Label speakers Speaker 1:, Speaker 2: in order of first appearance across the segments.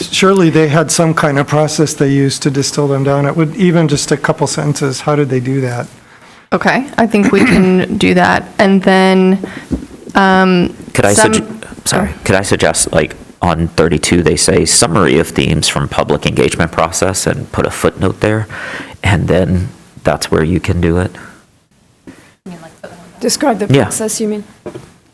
Speaker 1: surely they had some kind of process they used to distill them down. It would, even just a couple sentences, how did they do that?
Speaker 2: Okay, I think we can do that. And then, um,
Speaker 3: Could I,
Speaker 2: some-
Speaker 3: sug- sorry, could I suggest, like, on 32, they say summary of themes from public engagement process and put a footnote there? And then that's where you can do it?
Speaker 4: Describe the
Speaker 3: Yeah.
Speaker 4: process, you mean?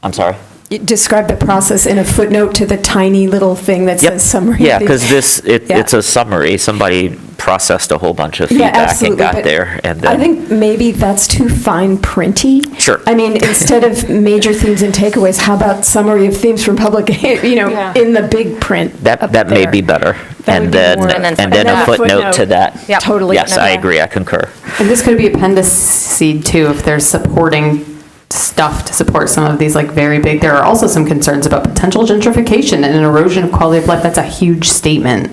Speaker 3: I'm sorry?
Speaker 4: You Describe the process in a footnote to the tiny little thing that
Speaker 3: Yep.
Speaker 4: says summary.
Speaker 3: Yeah, because this, it-
Speaker 4: Yeah.
Speaker 3: it's a summary. Somebody processed a whole bunch of
Speaker 4: Yeah,
Speaker 3: feedback and
Speaker 4: absolutely,
Speaker 3: got
Speaker 4: but
Speaker 3: there, and
Speaker 4: I
Speaker 3: then,
Speaker 4: think maybe that's too fine printy.
Speaker 3: Sure.
Speaker 4: I mean, instead of major themes and takeaways, how about summary of themes from public, you know,
Speaker 5: Yeah.
Speaker 4: in the big print?
Speaker 3: that,
Speaker 4: up
Speaker 3: that may
Speaker 4: there.
Speaker 3: be better.
Speaker 4: That
Speaker 3: And
Speaker 4: would be
Speaker 3: then,
Speaker 4: more-
Speaker 5: And then
Speaker 3: and then a footnote to that.
Speaker 4: Yep. Totally.
Speaker 3: Yes, I
Speaker 4: Yeah.
Speaker 3: agree, I concur.
Speaker 5: And this could be appendiceed too, if there's supporting stuff to support some of these like very big, there are also some concerns about potential gentrification and an erosion of quality of life. That's a huge statement.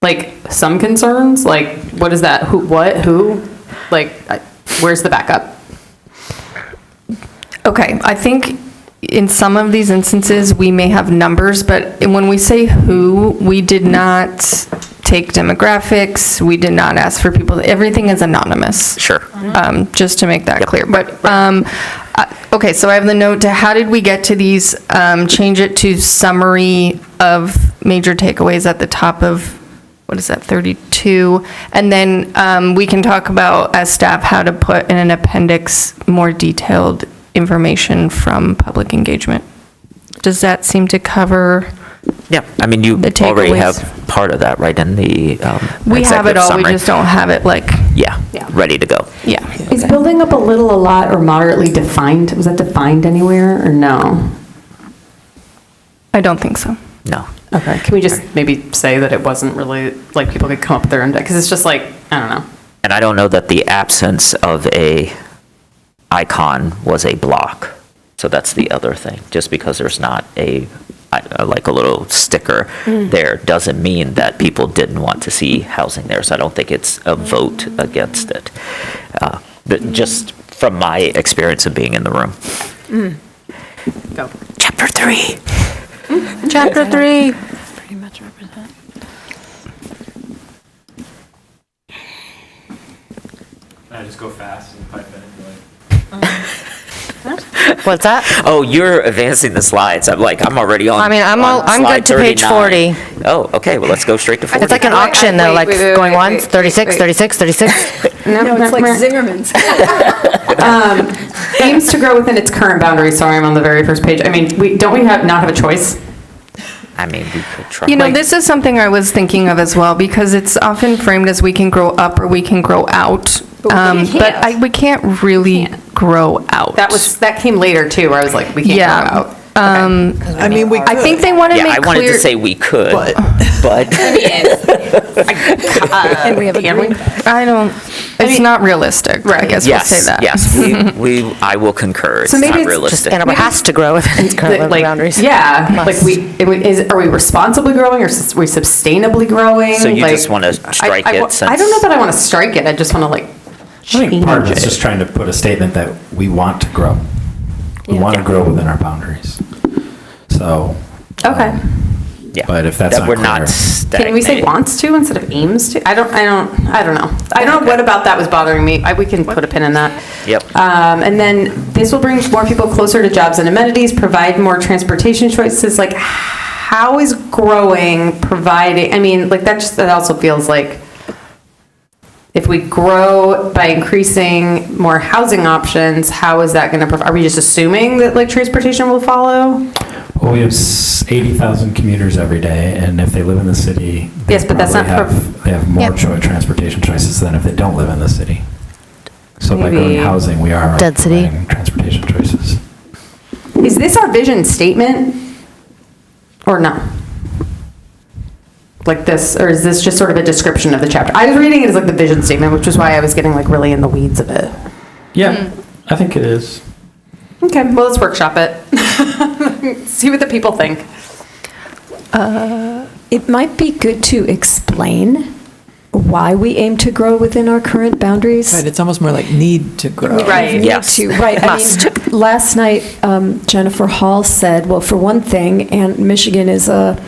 Speaker 5: Like, some concerns, like, what is that? Who, what, who? Like, I- where's the backup?
Speaker 2: okay, I think in some of these instances, we may have numbers, but when we say who, we did not take demographics, we did not ask for people, everything is anonymous.
Speaker 3: Sure.
Speaker 2: um, just to make that
Speaker 3: Yep.
Speaker 2: clear. But, um, I- okay, so I have the note to, how did we get to these, um, change it to summary of major takeaways at the top of, what is that, 32? And then um, we can talk about, as staff, how to put in an appendix more detailed information from public engagement. Does that seem to cover?
Speaker 3: Yeah, I mean, you
Speaker 2: The
Speaker 3: already
Speaker 2: takeaways.
Speaker 3: have part of that, right, in the um,
Speaker 2: We have it
Speaker 3: executive
Speaker 2: all, we
Speaker 3: summary.
Speaker 2: just don't have it like,
Speaker 3: Yeah, ready to go.
Speaker 2: yeah.
Speaker 5: Is building up a little a lot or moderately defined, was that defined anywhere or no?
Speaker 2: I don't think so.
Speaker 3: No.
Speaker 5: Okay, can we just maybe say that it wasn't really, like, people could come up with their own, because it's just like, I don't know.
Speaker 3: And I don't know that the absence of a icon was a block. So that's the other thing. Just because there's not a, I- like a little sticker
Speaker 6: Mm.
Speaker 3: there, doesn't mean that people didn't want to see housing there. So I don't think it's
Speaker 6: Mm.
Speaker 3: a vote against it. Uh, but Just from my experience of being in the room.
Speaker 5: Go.
Speaker 3: Chapter three.
Speaker 2: Chapter three.
Speaker 7: I just go fast and pipe in like.
Speaker 6: What's that?
Speaker 3: Oh, you're advancing the slides. I'm like, I'm already on.
Speaker 6: I mean, I'm all-
Speaker 3: on
Speaker 6: I'm
Speaker 3: slide
Speaker 6: good to page
Speaker 3: 39. Oh, okay, well, let's go straight to 40.
Speaker 6: It's like an auction, though, like going once, 36, 36, 36.
Speaker 4: No, it's like Zingerman's.
Speaker 5: aims to grow within its current boundaries. Sorry, I'm on the very first page. I mean, we, don't we have, not have a choice?
Speaker 3: I mean, we could try.
Speaker 2: You know,
Speaker 3: Like-
Speaker 2: this is something I was thinking of as well, because it's often framed as we can grow up or we can grow out. Um, But I, we can't really grow out.
Speaker 5: That was, that came later too, where I was like, we can't
Speaker 2: Yeah.
Speaker 5: grow out. Um.
Speaker 8: I mean, we
Speaker 2: I think they want to
Speaker 3: Yeah,
Speaker 2: make
Speaker 3: I wanted to say
Speaker 2: clear,
Speaker 3: we could, but,
Speaker 4: And we have a green.
Speaker 2: I don't, it's not realistic, I guess we'll say
Speaker 3: yes,
Speaker 2: that.
Speaker 3: yes, we, we, I will concur, it's
Speaker 5: maybe
Speaker 3: not
Speaker 5: it's just
Speaker 3: realistic.
Speaker 6: And it has to grow within its current
Speaker 5: like,
Speaker 6: boundaries.
Speaker 5: Yeah, like
Speaker 6: Must.
Speaker 5: we, it would- is, are we responsibly growing or s- we sustainably growing?
Speaker 3: So you
Speaker 5: Like,
Speaker 3: just wanna
Speaker 5: I-
Speaker 3: strike
Speaker 5: I
Speaker 3: it
Speaker 5: wa- I don't know
Speaker 3: since-
Speaker 5: that I want to strike it. I just want to like
Speaker 8: I think part of
Speaker 5: change
Speaker 8: it's
Speaker 5: it.
Speaker 8: just trying to put a statement that we want to grow. We want to grow within our boundaries. So.
Speaker 5: Okay.
Speaker 8: um,
Speaker 3: Yeah.
Speaker 8: But if that's
Speaker 3: That
Speaker 8: not
Speaker 3: We're not
Speaker 8: clear.
Speaker 3: stagnating.
Speaker 5: Can we say wants to instead of aims to? I don't, I don't, I don't know. I don't know what about that was bothering me. I, we can put a pin in that.
Speaker 3: Yep.
Speaker 5: Um, and then this will bring more people closer to jobs and amenities, provide more transportation choices. Like, how is growing providing? I mean, like that just that also feels like if we grow by increasing more housing options, how is that going to? Prov- are we just assuming that like transportation will follow?
Speaker 8: Well, we have s- 80,000 commuters every day, and if they live in the city. they
Speaker 5: Yes, but that's not
Speaker 8: probably have-
Speaker 5: prov-
Speaker 8: They have more
Speaker 2: Yep.
Speaker 8: choi- transportation choices than if they don't live in the city. So by
Speaker 5: Maybe-
Speaker 8: growing housing, we are
Speaker 6: Density.
Speaker 8: providing transportation choices.
Speaker 5: Is this our vision statement or no? Like this, or is this just sort of a description of the chapter? I was reading it as like the vision statement, which is why I was getting like really in the weeds of it.
Speaker 8: Yeah, I think it is.
Speaker 5: Okay, well, let's workshop it. See what the people think.
Speaker 4: It might be good to explain why we aim to grow within our current boundaries.
Speaker 9: Right, it's almost more like need to grow.
Speaker 5: Right.
Speaker 4: need
Speaker 3: Yes.
Speaker 4: to- Right, I mean, last night um, Jennifer Hall said, well, for one thing, and Michigan is a